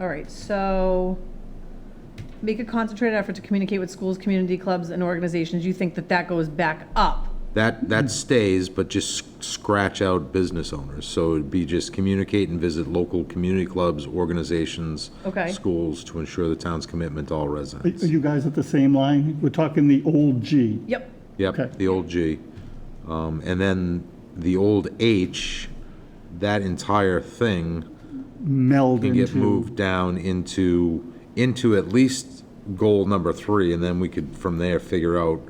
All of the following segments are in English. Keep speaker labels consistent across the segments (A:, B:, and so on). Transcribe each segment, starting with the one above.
A: All right, so make a concentrated effort to communicate with schools, community clubs, and organizations. You think that that goes back up?
B: That, that stays, but just scratch out business owners. So it'd be just communicate and visit local community clubs, organizations,
A: Okay.
B: schools to ensure the town's commitment to all
C: Are
B: residents.
C: are you guys at the same line? We're talking the old G.
A: Yep.
C: okay.
B: Yep, the old G. Um, and then the old H, that entire thing
C: Meld
B: can
C: into.
B: get moved down into, into at least goal number three, and then we could, from there, figure out,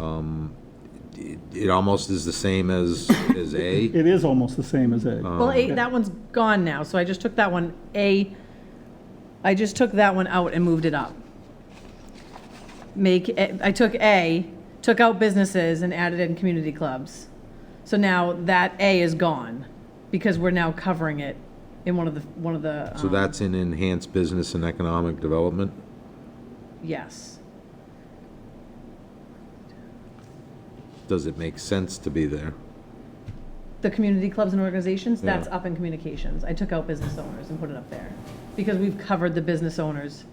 B: um, it, it almost is the same as, as A.
C: It is almost the same as
B: Oh.
C: A.
A: Well, A, that one's gone now, so I just took that one, A, I just took that one out and moved it up. Make, A- I took A, took out businesses and added in community clubs. So now that A is gone, because we're now covering it in one of the, one of the,
B: So
A: um,
B: that's in enhanced business and economic development?
A: um, yes.
B: Does it make sense to be there?
A: The community clubs and organizations, that's
B: Yeah.
A: up in communications. I took out business owners and put it up there, because we've covered the business owners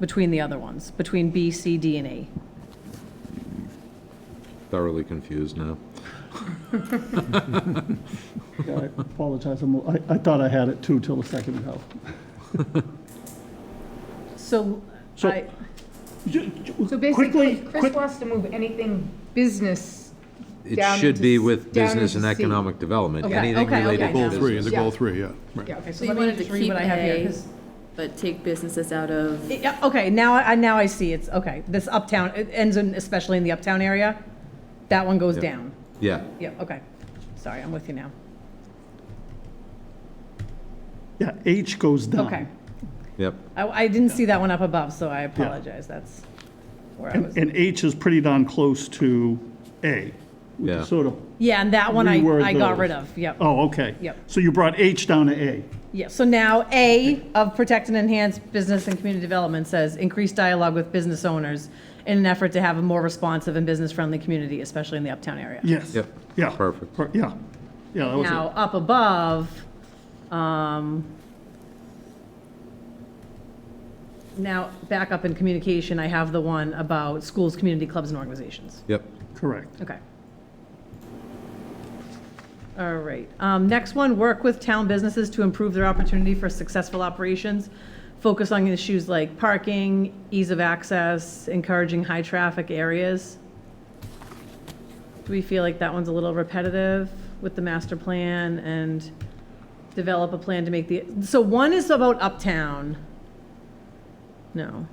A: between the other ones, between B, C, D, and A.
B: Thoroughly confused now.
C: Yeah, I apologize, I'm- I, I thought I had it too till a second ago.
A: So,
C: So-
A: I,
C: Ju- ju-
D: So
C: quickly,
D: basically, Chris
C: quick-
D: wants to move anything business.
B: It
D: Down
B: should
D: into
B: be
D: s-
B: with
D: down
B: business and
D: into C.
B: economic development,
A: Okay,
B: anything
A: okay,
B: related
A: okay, now.
B: to
E: Goal
A: Goal
E: three,
B: business.
E: is a
D: Yeah.
E: goal three, yeah, right.
A: so
D: Okay,
A: let
D: so you
A: me
D: wanted
A: just
D: to
A: read
D: keep
A: what I have here,
D: A.
A: 'cause-
F: But take businesses out of,
A: yeah, okay, now, I now I see, it's, okay, this uptown, it ends in, especially in the uptown area, that one goes
B: Yeah.
A: down.
B: Yeah,
A: Yeah, okay, sorry, I'm with you now,
C: Yeah, H goes down.
A: okay.
B: yep.
A: I, I didn't see that one up above, so I apologize, that's where I
C: And,
A: was.
C: and H is pretty darn close to A. We
B: Yeah.
C: Sort of,
A: Yeah, and that one I,
C: Reword
A: I got
C: those.
A: rid of, yep.
C: oh, okay.
A: Yep.
C: So you brought H down to A.
A: Yeah, so now A of protect and enhance business and community development says increase dialogue with business owners in an effort to have a more responsive and business-friendly community, especially in the uptown area.
C: Yes.
B: Yep.
C: Yeah.
B: Perfect.
C: Per- Yeah, yeah, that was
A: Now,
C: it.
A: up above, um, now, back up in communication, I have the one about schools, community clubs, and organizations.
B: Yep,
C: Correct.
A: Okay. All right. Um, Next one, work with town businesses to improve their opportunity for successful operations. Focus on issues like parking, ease of access, encouraging high-traffic areas. Do we feel like that one's a little repetitive with the master plan and develop a plan to make the, so one is about uptown. No.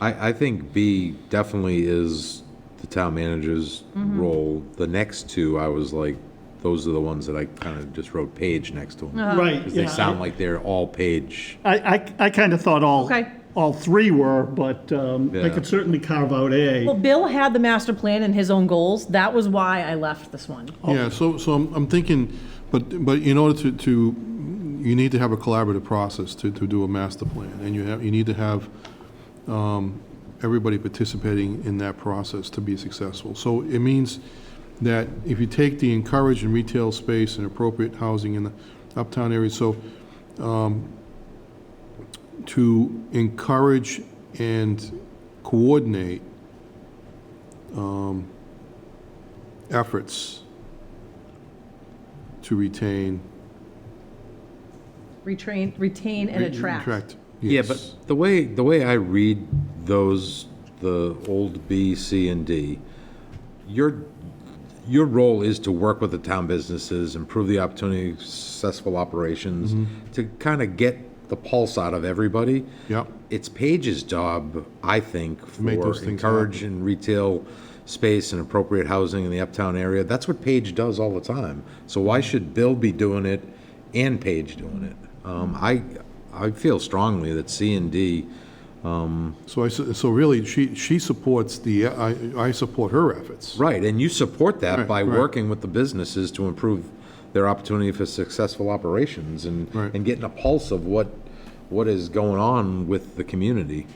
B: I, I think B definitely is the town manager's
D: Mm-hmm.
B: role. The next two, I was like, those are the ones that I kind of just wrote page next to
D: Uh-huh.
B: them.
C: Right,
B: Because
C: yeah.
B: they sound like they're all page.
C: I, I, I kind of thought all,
A: Okay.
C: all three were, but um, I
B: Yeah.
C: could certainly carve out A.
A: Well, Bill had the master plan and his own goals. That was why I left this one.
E: Yeah, so, so I'm, I'm thinking, but, but in order to, to, you need to have a collaborative process to, to do a master plan, and you have, you need to have, um, everybody participating in that process to be successful. So it means that if you take the encourage in retail space and appropriate housing in the uptown area, so, um, to encourage and coordinate um, efforts to retain.
A: Retrain, retain and attract.
B: Yeah,
E: yes.
B: but the way, the way I read those, the old B, C, and D, your, your role is to work with the town businesses, improve the opportunity, successful operations, to kind of get the pulse out of everybody.
E: Yep.
B: It's Paige's job, I think,
E: make
B: for
E: those things
B: encourage and retail space and appropriate housing in the uptown area. That's what Paige does all the time. So why
E: Mm-hmm.
B: should Bill be doing it and Paige doing it? Um,
E: Mm-hmm.
B: I, I feel strongly that C and D,
E: So I, s- so really, she, she supports the, I, I support her efforts.
B: right, and you support that
E: Right,
B: by
E: right.
B: working with the businesses to improve their opportunity for successful operations and,
E: Right.
B: and getting a pulse of what, what is going on with the community,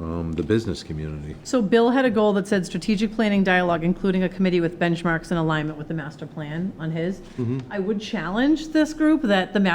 B: um, the business community.
A: So Bill had a goal that said strategic planning dialogue, including a committee with benchmarks in alignment with the master plan on his. I would challenge this group that the master